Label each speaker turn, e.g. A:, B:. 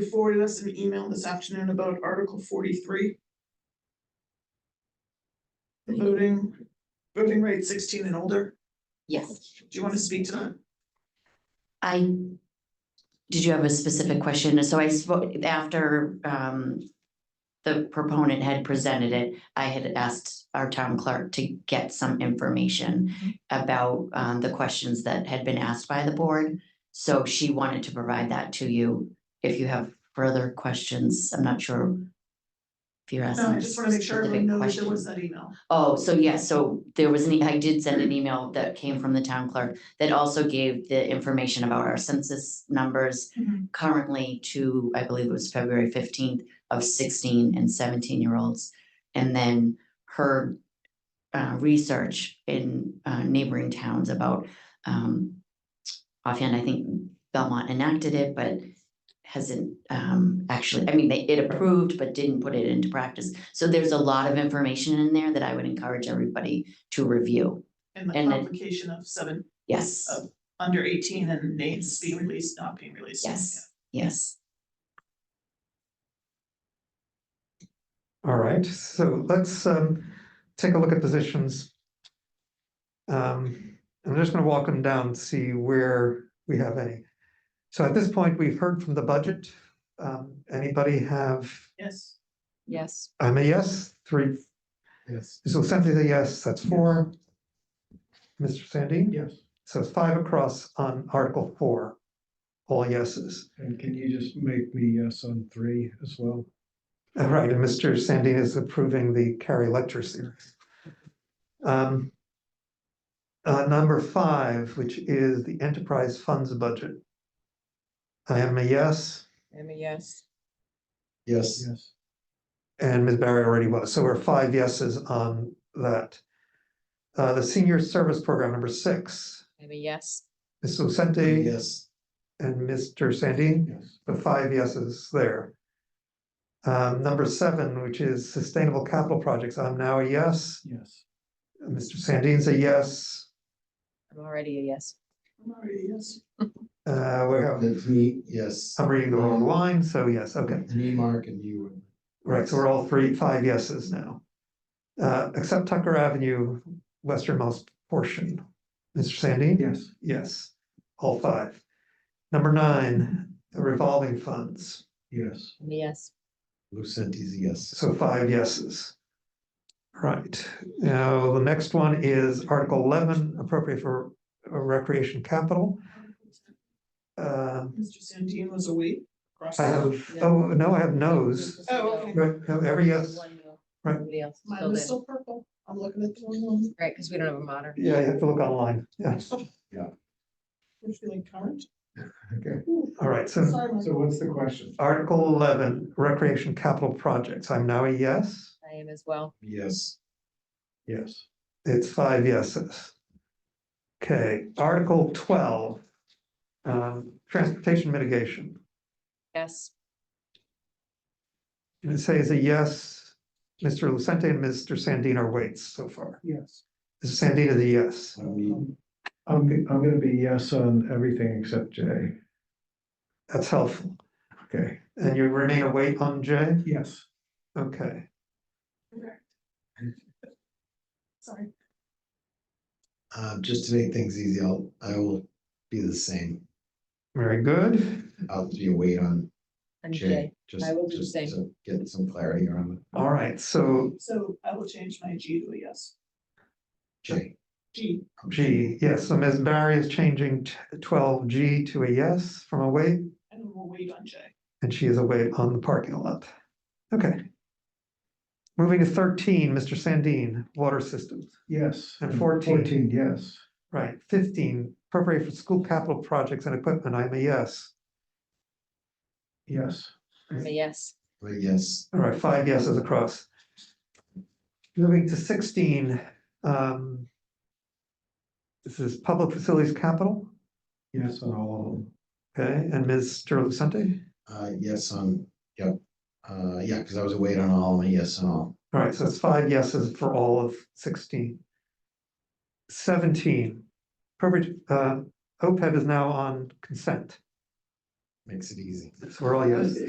A: You forwarded us an email this afternoon about Article forty-three. The Voting, voting rate sixteen and older.
B: Yes,
A: Do you want to speak to that?
B: I, did you have a specific question? So I spoke after um. The proponent had presented it, I had asked our town clerk to get some information about um the questions that had been asked by the board. So she wanted to provide that to you. If you have further questions, I'm not sure. If you're asking.
A: No, I Um, just want to make sure everyone
B: specific
A: knows there
B: questions.
A: was that email.
B: Oh, so yes, so there was an, e- I did send an email that came from the town clerk that also gave the information about our census numbers
A: Mhm.
B: currently to, I believe it was February fifteenth of sixteen and seventeen year olds. And then her uh research in uh neighboring towns about um offhand, I think Belmont enacted it, but hasn't um actually, I mean, they it approved but didn't put it into practice. So there's a lot of information in there that I would encourage everybody to review.
A: And the
B: And it-
A: complication of seven,
B: Yes,
A: Oh. under eighteen and names being released, not being released.
B: yes, yes.
C: All right, so let's um take a look at positions. Um, I'm just gonna walk them down, see where we have any. So at this point, we've heard from the budget. Um, anybody have,
A: Yes.
D: Yes.
C: I'm a yes, three,
E: Yes.
C: so Cynthia's a yes, that's four. Mr. Sandin?
E: Yes.
C: So it's five across on Article four, all yeses.
E: And can you just make me yes on three as well?
C: All right, and Mr. Sandin is approving the Carrie Lecture series. Um, uh, number five, which is the enterprise funds budget. I am a yes,
D: I'm a yes.
E: Yes. Yes.
C: and Ms. Barry already was, so we're five yeses on that. Uh, the senior service program, number six,
D: I'm a yes.
C: Ms. Lucente
E: Yes.
C: and Mr. Sandin.
E: Yes.
C: the five yeses there. Um, number seven, which is sustainable capital projects, I'm now a yes.
E: Yes.
C: Mr. Sandin's a yes.
D: I'm already a yes.
A: I'm already, yes.
C: Uh, we have,
F: That's me, yes.
C: I'm reading the wrong line, so yes, okay.
F: Me, Mark, and you.
C: Right, so we're all three, five yeses now. Uh, except Tucker Avenue, westernmost portion. Mr. Sandin?
E: Yes.
C: Yes, all five. Number nine, the revolving funds,
E: Yes.
D: I'm a yes.
F: Lucenti's, yes.
C: so five yeses. Right, now the next one is Article eleven, appropriate for recreation capital. Uh,
A: Mr. Sandin was away. Cross
C: I
A: out.
C: have, oh, no, I have no's.
A: Oh, okay.
C: Right, no, every yes,
D: One no.
C: Right.
D: Nobody else.
A: Mine
D: filled
A: was
D: in.
A: still purple. I'm looking at the wrong one.
D: Right, because we don't have a modern.
C: yeah, you have to look online, yes,
A: We're feeling current.
F: Okay.
C: all right, so
A: Sorry, Mike.
F: So what's the question?
C: Article eleven, recreation capital projects, I'm now a yes,
D: I am as well.
F: Yes.
E: Yes.
C: it's five yeses. Okay, Article twelve, um, transportation mitigation,
D: Yes.
C: and it says a yes, Mr. Lucente and Mr. Sandin are waits so far.
E: Yes.
C: Mr. Sandin is a yes,
F: I mean,
E: Um, I'm, g- I'm gonna be yes on everything except J.
C: that's helpful,
E: Okay.
C: and you remain a wait on J,
E: Yes.
C: okay,
A: Sorry.
F: uh, just to make things easy, I'll, I will be the same.
C: very good.
F: I'll be a wait on
D: And
F: J.
D: J.
F: Just
D: I will do the
F: just
D: same.
F: to Get some clarity around the
C: All right, so
A: So I will change my G to a yes.
F: J.
A: G.
C: G, yes, so Ms. Barry is changing twelve G to a yes from a wait,
A: And we'll wait on J.
C: and she is a wait on the parking lot. Okay. Moving to thirteen, Mr. Sandin, water systems,
E: Yes.
C: And 14.
E: Fourteen, yes.
C: right, fifteen, appropriate for school capital projects and equipment, I'm a yes.
E: Yes.
D: I'm a yes.
F: But yes,
C: All right, five yeses across. Moving to sixteen, um. This is public facilities capital,
E: Yes on all of them.
C: okay, and Mr. Lucente?
F: uh, yes on, yep. Uh, yeah, because I was a wait on all, and yes on all.
C: All right, so it's five yeses for all of sixteen. Seventeen, appropriate, uh, OPEB is E now on consent,
F: Makes it easy.
C: so we're all yeses.